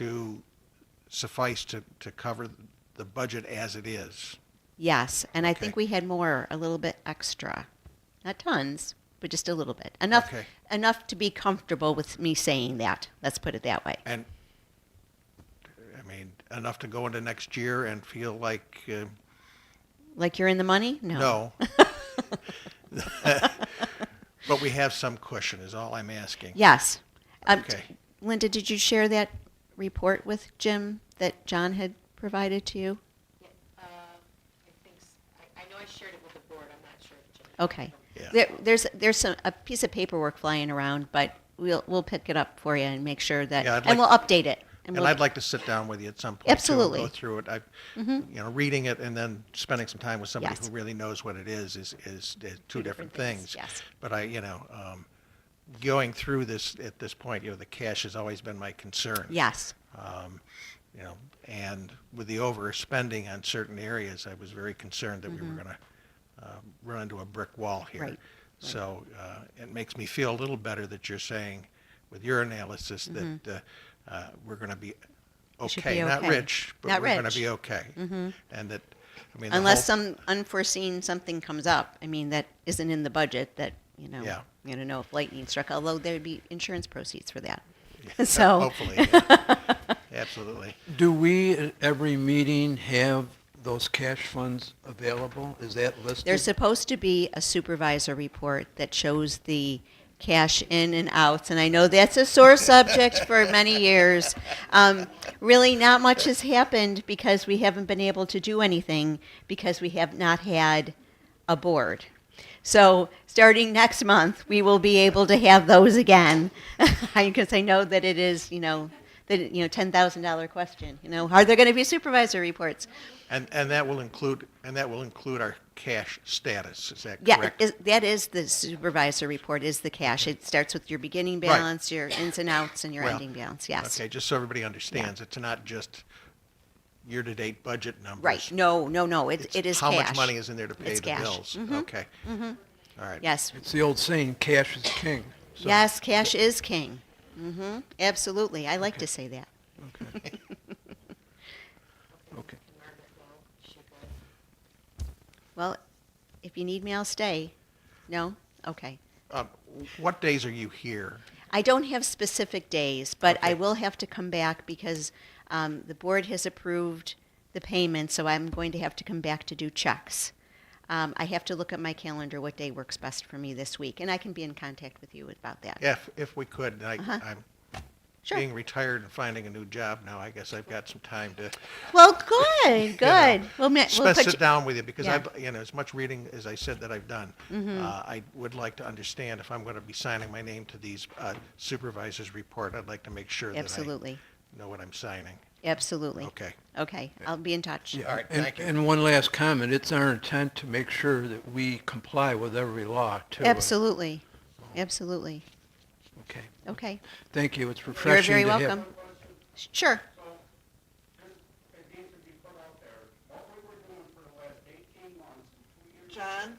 to suffice to, to cover the budget as it is. Yes, and I think Okay. we had more, a little bit extra, not tons, but just a little bit, enough Okay. enough to be comfortable with me saying that. Let's put it that way. And, I mean, enough to go into next year and feel like, uh, Like you're in the money? No. no. But we have some cushion is all I'm asking. Yes. Um, Okay. Linda, did you share that report with Jim that John had provided to you? Uh, I think, s- I I know I shared it with the board, I'm not sure if Jim. Okay. Yeah. There, there's there's some, a piece of paperwork flying around, but we'll we'll pick it up for you and make sure that, Yeah, I'd and like- we'll update it. And we'll- I'd like to sit down with you at some point. too, and Absolutely. Go through it. I, you know, reading it and then spending some time with somebody Yes. who really knows what it is is, is, is two different things. Yes. But I, you know, um, going through this, at this point, you know, the cash has always been my concern. Yes. Um, you know, and with the overspending on certain areas, I was very concerned that we were gonna, uh, run into a brick wall here. Mm-hmm. Right, right. So, uh, it makes me feel a little better that you're saying, with your analysis, that, uh, uh, we're gonna be Mm-hmm. should okay, be not okay. rich, but Not we're gonna rich. Mm-hmm. be okay. And that, I mean. the Unless whole- some unforeseen something comes up, I mean, that isn't in the budget that, you know, Yeah. you don't know if lightning struck, although there would be insurance proceeds for that. So, Hopefully, yeah. absolutely. Do we at every meeting have those cash funds available? Is that listed? there's supposed to be a supervisor report that shows the cash in and outs, and I know that's a sore subject for many years. Um, really, not much has happened because we haven't been able to do anything because we have not had a board. So, starting next month, we will be able to have those again, because I know that it is, you know, that you know, ten thousand dollar question. You know, are there going to be supervisor reports? And, and that will include, and that will include our cash status, is that Yeah, it correct? is, that is the supervisor report. Is the cash? It starts with your beginning Right. balance, your ins and outs, and your Well, ending balance. Yes. Okay, just so everybody understands, it's not just year-to-date budget numbers. Right. No. No. No. It, It's it is How cash. much money is in there to pay It's the cash. Mm-hmm. bills? Okay. All right. Yes. It's the old saying, cash is king. So- Yes. Cash is king. hmm Absolutely. I like to say that. Okay. Okay. And Margaret Lowe, she good? Well, if you need me, I'll stay. No. Okay. Um, What days are you here? I don't have specific days, but I Okay. will have to come back because um, the board has approved the payment, so I'm going to have to come back to do checks. Um, I have to look at my calendar, what day works best for me this week, and I can be in contact with you about that. If, if we could, and Uh-huh. I, I'm Sure. being retired and finding a new job now, I guess I've got some time to Well, good, you know, good. We'll, ma- we'll sp- put sit you- down with you because Yeah. Mm-hmm. I've, you know, as much reading as I said that I've done, uh, I would like to understand if I'm going to be signing my name to these uh, supervisors' report. I'd like to make sure that I Absolutely, know what I'm signing. absolutely. Okay. Okay, I'll be in touch. Yeah, All right, and- thank you. And one last comment, it's our intent to make sure that we comply with every law, uh, too. Absolutely, absolutely. Okay, Okay, thank you, it's you're refreshing very to have. welcome. Sure. John?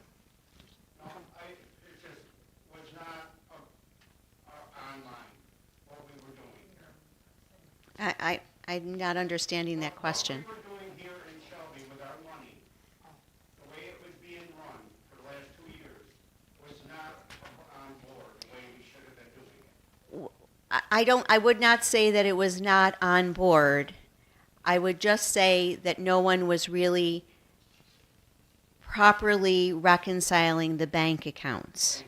Um, I, it just was not, uh, uh, online, what we were doing here. I, I, I'm not understanding that question. What we were doing here in Shelby with our money, the way it was being run for the last two years, was not on board, the way we should have been doing it. I- I don't. I would not say that it was not on board. I would just say that no one was really properly reconciling the bank accounts.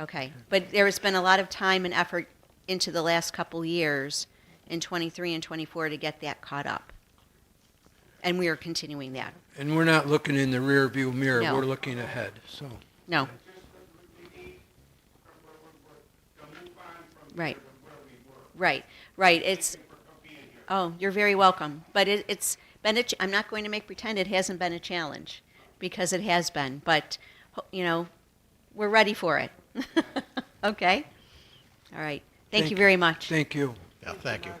Okay, but there has been a lot of time and effort into the last couple years in 23 and 24 to get that caught up, and we are continuing that. And we're not looking in the rearview mirror, No. we're looking ahead, so. No, Just that we we need, uh, we're, we're, we're, to move on from Right. here to where we were. right, right. It's Thank you for being here. Oh, you're very welcome. But it, it's been a. Ch- I'm not going to make pretend it hasn't been a challenge, because it has been. But ho- you know, we're ready for it. okay. All right. Thank, you very much. Thank you. Yeah, thank you.